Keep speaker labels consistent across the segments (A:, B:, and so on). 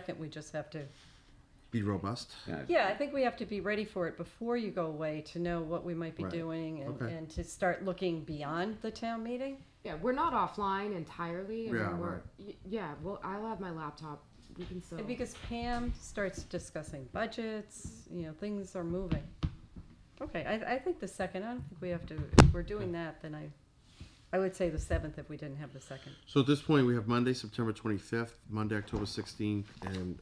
A: second, we just have to,
B: Be robust.
A: yeah, I think we have to be ready for it before you go away to know what we might be
B: Right.
A: doing and,
B: Okay.
A: and to start looking beyond the town meeting.
C: Yeah, we're not offline entirely. I mean,
B: Yeah,
C: we're, y- yeah. Well, I'll have my laptop. We can still.
A: And Because Pam starts discussing budgets, you know, things are moving. Okay, I, I think the second, I don't think we have to, if we're doing that, then I, I would say the seventh if we didn't have the second.
B: So at this point, we have Monday, September 25th, Monday, October 16th, and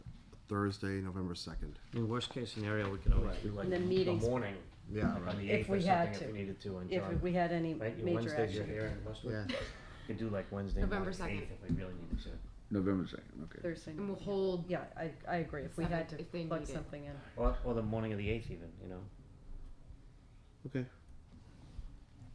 B: Thursday, November 2nd.
D: In worst case scenario, we could always do like
A: And then
D: the
A: meetings-
D: morning,
B: Yeah,
D: like on the
A: If
D: eighth or
A: we had
D: something if
A: to.
D: we needed to, and
A: If
D: John,
A: we had any
D: right, your
A: major
D: Wednesdays are
A: action,
D: here in Westwood.
B: Yeah.
D: Could do like Wednesday,
C: November
D: March
C: second.
D: eighth if we really needed to.
E: November second, okay.
A: Thursday.
C: and we'll hold.
A: Yeah, I, I agree, if we had to
C: Seventh, if they
A: plug
C: need it.
A: something in.
D: Or, or the morning of the eighth even, you know?
B: Okay.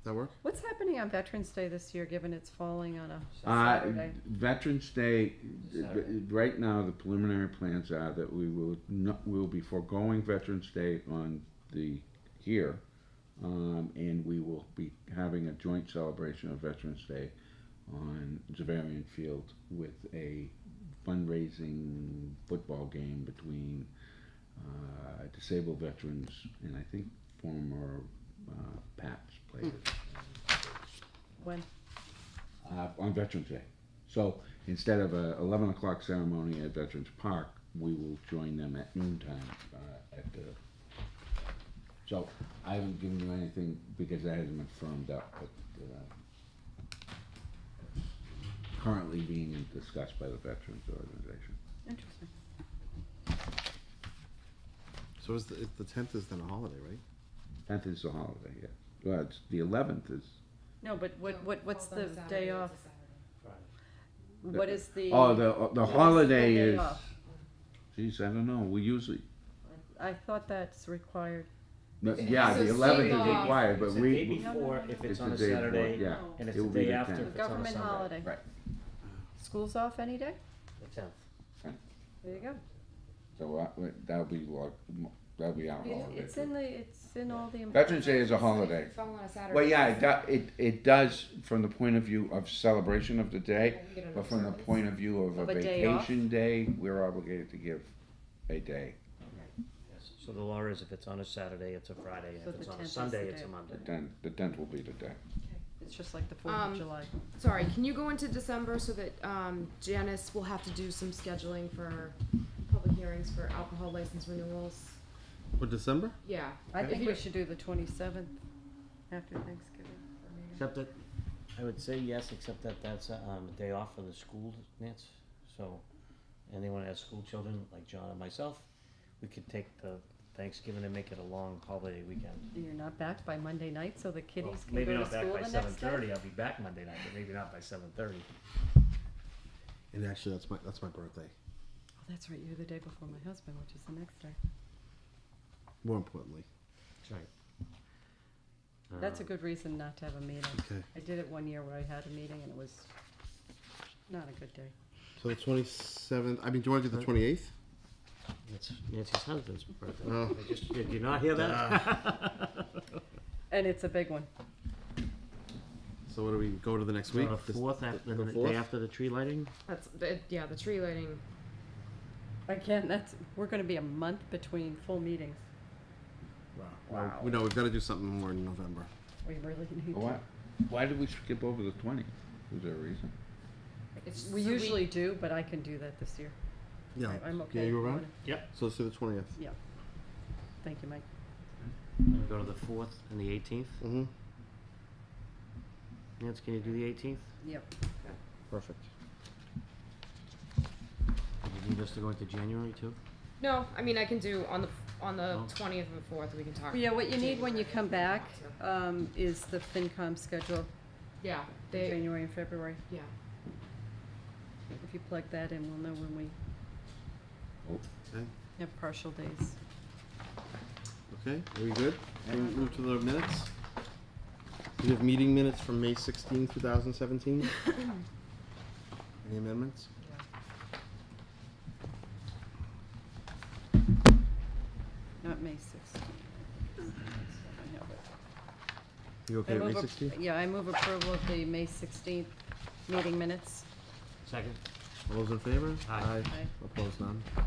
B: That work?
A: What's happening on Veterans Day this year, given it's falling on a
E: Uh,
A: Saturday?
E: Veterans Day,
D: Saturday.
E: right now, the preliminary plans are that we will not, we'll be foregoing Veterans Day on the, here. Um, and we will be having a joint celebration of Veterans Day on Javarian Field with a fundraising football game between, uh, disabled veterans and I think former, uh, PAPS players.
A: When,
E: uh, on Veterans Day. So instead of a 11 o'clock ceremony at Veterans Park, we will join them at noontime uh, at the. So I haven't given you anything because that hasn't been firmed up, but uh, currently being discussed by the Veterans Organization.
A: interesting.
B: So is the, if the 10th is then a holiday, right?
E: 10th is a holiday, yeah. Well, it's the 11th is.
A: No, but what, what, what's the day off? What is the?
E: oh, the the
A: what's
E: holiday
A: day
E: is.
A: off?
E: Geez, I don't know. We usually.
A: I thought that's required.
E: no,
C: It's
E: yeah,
C: the
E: the 11th
C: same
E: is
C: off.
E: required, but
D: It's the
E: we.
D: day
E: we-
D: before, if it's
E: It's
D: on
E: the
D: a
E: day before,
D: Saturday,
E: yeah.
D: and
E: It
D: it's the
E: will be
D: day
E: the
D: after,
E: 10th.
D: if it's on a
A: Government
D: Sunday.
A: holiday.
E: Right.
A: School's off any day?
D: The tenth.
A: There you go.
E: So uh, wait, that'll be like, m- that'll be our
D: Oh,
A: It-
E: holiday.
A: It's in the, it's in all the.
E: Veterans Day is a holiday. Well, yeah, it, do- it, it does from the point of view of celebration of the day,
C: Yeah, we get an
E: but from the
C: observance.
E: point of view of
A: Of
E: a
A: a day off.
E: vacation day, we're obligated to give a day.
D: Yes. So the law is if it's on a Saturday, it's a Friday, and
A: So
D: if it's
A: the
D: on
A: 10th
D: a
A: is
D: Sunday,
A: the
D: it's
A: day.
D: a Monday.
E: The tenth, the tenth will be the day.
A: It's just like the Fourth
C: Um,
A: of July.
C: Sorry, can you go into December so that um, Janice will have to do some scheduling for public hearings for alcohol license renewals?
B: For December?
C: Yeah.
A: I
C: If
A: think
C: you-
A: we should do the twenty-seventh after Thanksgiving.
D: Except that, I would say yes, except that that's a, um, a day off for the school, Nance, so, anyone that has school children, like John and myself, we could take the Thanksgiving and make it a long holiday weekend.
A: You're not back by Monday night, so the
D: Well,
A: kiddies can go
D: Maybe
A: to
D: not back
A: school
D: by
A: the
D: seven
A: next day?
D: thirty, I'll be back Monday night, but maybe not by seven thirty.
B: And actually, that's my that's my birthday.
A: Oh, that's right, you're the day before my husband, which is the next day.
B: More importantly.
D: That's right.
A: That's
D: Uh.
B: Uh,
A: a good reason not to have a meeting.
B: Okay.
A: I did it one year where I had a meeting and it was not a good day.
B: So the 27th. I mean, do you want to do the 28th?
D: That's Nancy's husband's birthday.
B: Oh. Uh,
D: I just- Did you not hear that?
A: And it's a big one.
B: So what do we go to the next week?
D: The
B: This-
D: fourth, af-
B: the
D: the
B: fourth?
D: day after the tree lighting?
C: That's, the- yeah, the tree lighting.
A: Again, that's, we're gonna be a month between full meetings.
B: Well, We know Oh, we've got to do something more in November.
A: We really need
E: Why,
A: to.
E: why did we skip over the twentieth? Is there a reason?
C: It's
A: We
C: so
A: usually do, but I can do that this year. I- I'm okay.
B: Yeah, you
A: with
B: around?
A: it.
D: Yep.
B: So let's do the 20th.
A: Thank you, Mike.
D: And go to the fourth and the eighteenth.
B: Mm-hmm.
D: Nancy, can you do the eighteenth?
A: Yep.
D: Perfect. Do you need us to go into January too?
C: No, I mean, I can do on the, on the
D: Oh.
C: twentieth and the fourth, we can talk.
A: Yeah, what you need when you come back, um, is the FinCom schedule,
C: Yeah,
A: for
C: they,
A: January and February.
C: yeah.
A: If you plug that in, we'll know when we
B: Okay.
A: have partial days.
B: Okay, are we good? Can we move to the minutes? We have meeting minutes from May 16, 2017. Any amendments?
A: Not May sixteenth. I have it.
B: You
A: I
B: okay with
A: move
B: May
A: ap-
B: 16?
A: Yeah, I move approval of the May sixteenth meeting minutes.
D: Second.
B: All those in favor?
D: Aye.
A: Aye.
B: Opposed, none?